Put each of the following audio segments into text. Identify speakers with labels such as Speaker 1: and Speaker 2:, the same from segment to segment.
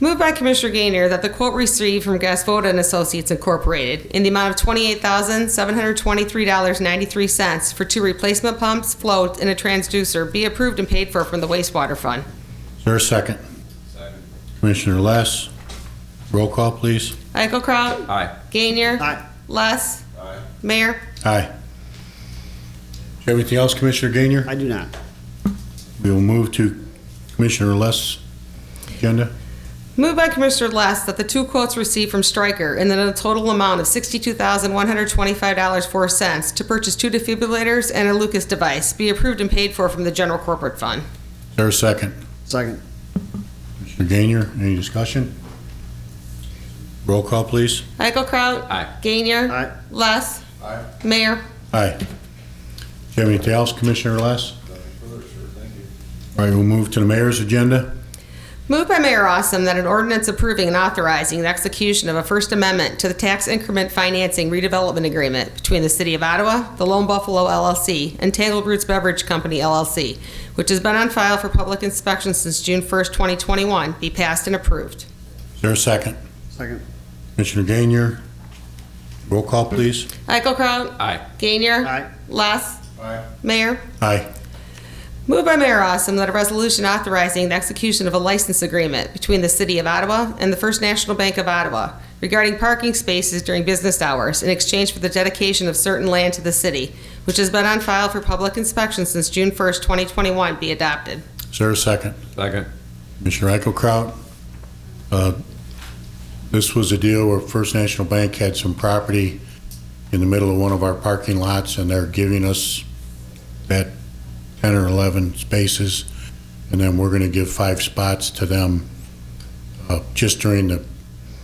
Speaker 1: Moved by Commissioner Gainer that the quote received from Gasvoda and Associates Incorporated in the amount of twenty-eight thousand seven hundred twenty-three dollars ninety-three cents for two replacement pumps, floats, and a transducer be approved and paid for from the wastewater fund.
Speaker 2: Is there a second? Commissioner Less, roll call, please.
Speaker 1: Eichelkraut?
Speaker 3: Aye.
Speaker 1: Gainer?
Speaker 4: Aye.
Speaker 1: Less?
Speaker 3: Aye.
Speaker 1: Mayor?
Speaker 2: Aye. Do you have anything else, Commissioner Gainier?
Speaker 4: I do not.
Speaker 2: We will move to Commissioner Less' agenda.
Speaker 1: Moved by Commissioner Less that the two quotes received from Stryker in the total amount of $62,125.04 to purchase two defibrillators and a Lucas device be approved and paid for from the general corporate fund.
Speaker 2: Is there a second?
Speaker 4: Second.
Speaker 2: Commissioner Gainier, any discussion? Roll call, please.
Speaker 1: Eichelkraut?
Speaker 3: Aye.
Speaker 1: Gainier?
Speaker 4: Aye.
Speaker 1: Less?
Speaker 3: Aye.
Speaker 1: Mayor?
Speaker 2: Aye. Do you have anything else, Commissioner Less? All right, we'll move to the mayor's agenda.
Speaker 1: Moved by Mayor Awesome that an ordinance approving and authorizing the execution of a First Amendment to the Tax Increment Financing Redevelopment Agreement between the City of Ottawa, the Lone Buffalo LLC, and Tangled Roots Beverage Company LLC, which has been on file for public inspection since June 1st, 2021, be passed and approved.
Speaker 2: Is there a second?
Speaker 4: Second.
Speaker 2: Commissioner Gainier, roll call, please.
Speaker 1: Eichelkraut?
Speaker 3: Aye.
Speaker 1: Gainier?
Speaker 4: Aye.
Speaker 1: Less?
Speaker 3: Aye.
Speaker 1: Mayor?
Speaker 2: Aye.
Speaker 1: Moved by Mayor Awesome that a resolution authorizing the execution of a license agreement between the City of Ottawa and the First National Bank of Ottawa regarding parking spaces during business hours in exchange for the dedication of certain land to the city, which has been on file for public inspection since June 1st, 2021, be adopted.
Speaker 2: Is there a second?
Speaker 3: Second.
Speaker 2: Commissioner Eichelkraut, uh, this was a deal where First National Bank had some property in the middle of one of our parking lots, and they're giving us that 10 or 11 spaces, and then we're going to give five spots to them uh, just during the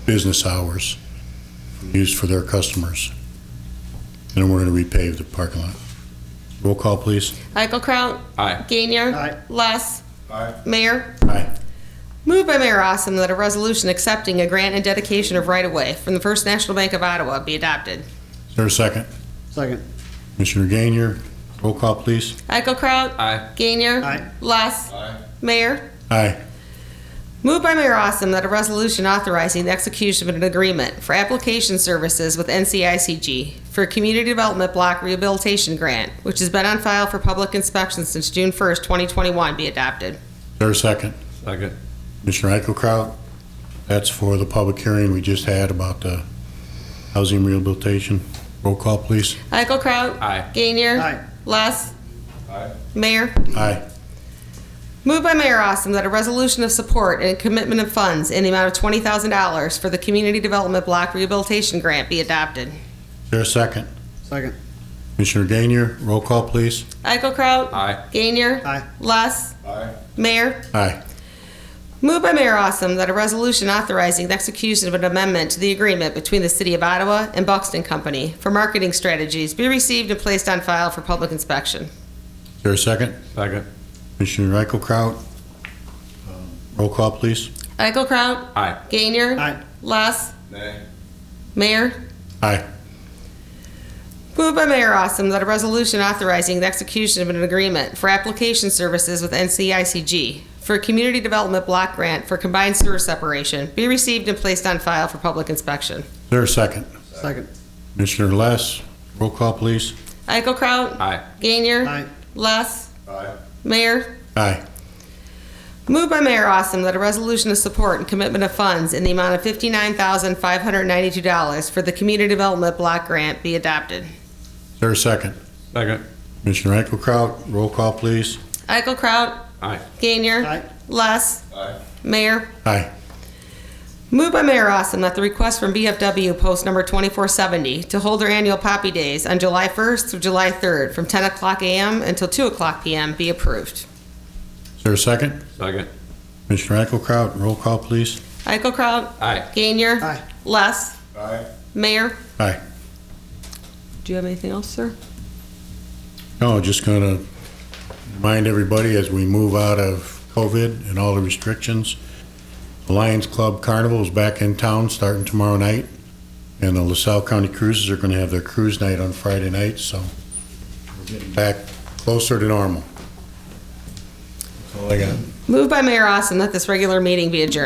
Speaker 2: business hours, used for their customers. And then we're going to repave the parking lot. Roll call, please.
Speaker 1: Eichelkraut?
Speaker 3: Aye.
Speaker 1: Gainier?
Speaker 4: Aye.
Speaker 1: Less?
Speaker 3: Aye.
Speaker 1: Mayor?
Speaker 2: Aye.
Speaker 1: Moved by Mayor Awesome that a resolution accepting a grant and dedication of right-of-way from the First National Bank of Ottawa be adopted.
Speaker 2: Is there a second?
Speaker 4: Second.
Speaker 2: Commissioner Gainier, roll call, please.
Speaker 1: Eichelkraut?
Speaker 3: Aye.
Speaker 1: Gainier?
Speaker 4: Aye.
Speaker 1: Less?
Speaker 3: Aye.
Speaker 1: Mayor?
Speaker 2: Aye.
Speaker 1: Moved by Mayor Awesome that a resolution authorizing the execution of an agreement for application services with NCICG for a community development block rehabilitation grant, which has been on file for public inspection since June 1st, 2021, be adopted.
Speaker 2: Is there a second?
Speaker 3: Second.
Speaker 2: Commissioner Eichelkraut, that's for the public hearing we just had about the housing rehabilitation. Roll call, please.
Speaker 1: Eichelkraut?
Speaker 3: Aye.
Speaker 1: Gainier?
Speaker 4: Aye.
Speaker 1: Less?
Speaker 3: Aye.
Speaker 1: Mayor?
Speaker 2: Aye.
Speaker 1: Moved by Mayor Awesome that a resolution of support and commitment of funds in the amount of $20,000 for the community development block rehabilitation grant be adopted.
Speaker 2: Is there a second?
Speaker 4: Second.
Speaker 2: Commissioner Gainier, roll call, please.
Speaker 1: Eichelkraut?
Speaker 3: Aye.
Speaker 1: Gainier?
Speaker 4: Aye.
Speaker 1: Less?
Speaker 3: Aye.
Speaker 1: Mayor?
Speaker 2: Aye.
Speaker 1: Moved by Mayor Awesome that a resolution authorizing the execution of an amendment to the agreement between the City of Ottawa and Buxton Company for marketing strategies be received and placed on file for public inspection.
Speaker 2: Is there a second?
Speaker 3: Second.
Speaker 2: Commissioner Eichelkraut, um, roll call, please.
Speaker 1: Eichelkraut?
Speaker 3: Aye.
Speaker 1: Gainer?
Speaker 4: Aye.
Speaker 1: Less?
Speaker 3: Nay.
Speaker 1: Mayor?
Speaker 2: Aye.
Speaker 1: Moved by Mayor Awesome that a resolution authorizing the execution of an agreement for application services with NCICG for a community development block grant for combined sewer separation be received and placed on file for public inspection.
Speaker 2: Is there a second?
Speaker 4: Second.
Speaker 2: Commissioner Less, roll call, please.
Speaker 1: Eichelkraut?
Speaker 3: Aye.
Speaker 1: Gainer?
Speaker 4: Aye.
Speaker 1: Less?
Speaker 3: Aye.
Speaker 1: Mayor?
Speaker 2: Aye.
Speaker 1: Moved by Mayor Awesome that a resolution of support and commitment of funds in the amount of $59,592 for the Community Development Block Grant be adopted.
Speaker 2: Is there a second?
Speaker 3: Second.
Speaker 2: Commissioner Eichelkraut, roll call, please.
Speaker 1: Eichelkraut?
Speaker 3: Aye.
Speaker 1: Gainier?
Speaker 4: Aye.
Speaker 1: Less?
Speaker 3: Aye.
Speaker 1: Mayor?
Speaker 2: Aye.
Speaker 1: Moved by Mayor Awesome that the request from BFW Post Number 2470 to hold their annual Poppy Days on July 1st through July 3rd from 10 o'clock a.m. until 2 o'clock p.m. be approved.
Speaker 2: Is there a second?
Speaker 3: Second.
Speaker 2: Commissioner Eichelkraut, roll call, please.
Speaker 1: Eichelkraut?
Speaker 3: Aye.
Speaker 1: Gainier?
Speaker 4: Aye.
Speaker 1: Less?
Speaker 3: Aye.
Speaker 1: Mayor?
Speaker 2: Aye.
Speaker 1: Do you have anything else, sir?
Speaker 2: No, just gonna remind everybody as we move out of COVID and all the restrictions, the Lions Club Carnival is back in town starting tomorrow night, and the LaSalle County Cruises are gonna have their cruise night on Friday night, so we're getting back closer to normal. That's all I got.
Speaker 1: Moved by Mayor Awesome that this regular meeting be adjourned.